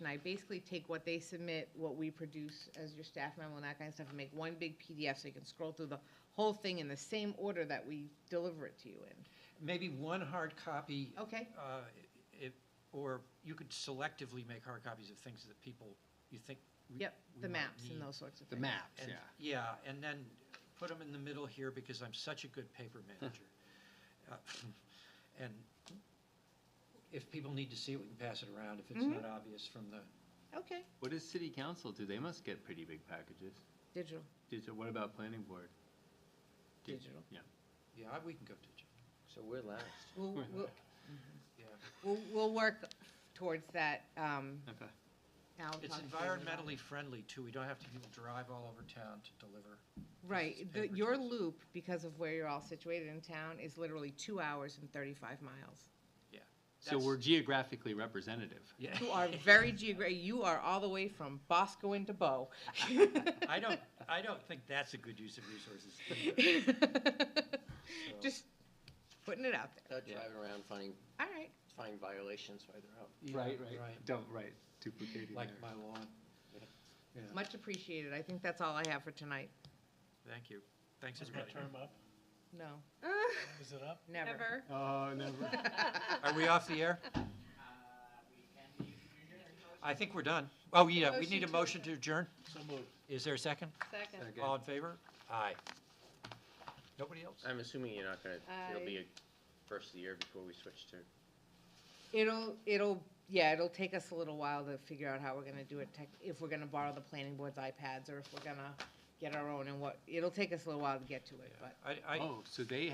I basically take what they submit, what we produce as your staff memo and that kind of stuff, and make one big PDF so you can scroll through the whole thing in the same order that we deliver it to you in. Maybe one hard copy. Okay. uh, If, or you could selectively make hard copies of things that people, you think. we- Yep, we the might maps and need. those sorts of The things. maps, And- yeah. Yeah, and then put them in the middle here because I'm such a good paper manager. Uh, And if people need to see it, we can pass it around if it's Mm-hmm. not obvious from the, Okay, What does city council do? They must get pretty big packages. digital, Did, what about planning board? Did- digital. Yeah. yeah, we can go digital. So we're last. We'll, we'll, Yeah, we'll, we'll work towards that, um, Okay. Al It's talked to you about- environmentally friendly too. We don't have to people drive all over town to deliver. Right, It's the, paper your trails. loop, because of where you're all situated in town, is literally two hours and thirty-five miles. Yeah. So we're geographically representative. Yeah. You are very geogra, you are all the way from Bosco into Bow. I don't, I don't think that's a good use of resources. Just putting it out there. Not driving around finding, All right, finding violations while they're out. Right, right. Don't, right, duplicating Like there. my lawn. Yeah. much appreciated. I think that's all I have for tonight. Thank you. Thanks, Is my everybody. term up? No, Is it up? never. Oh, never. Are Uh, we off the air? I think we're done. Oh, yeah, we need a motion to adjourn. So moved. Is there a second? Second. All in favor? Aye. Nobody else? I'm assuming you're not gonna, it'll be I- a first of the year before we switch to. It'll, it'll, yeah, it'll take us a little while to figure out how we're gonna do it tech, if we're gonna borrow the planning board's iPads or if we're gonna get our own and what, it'll take us a little while to get to it, but. I, I, Oh, so they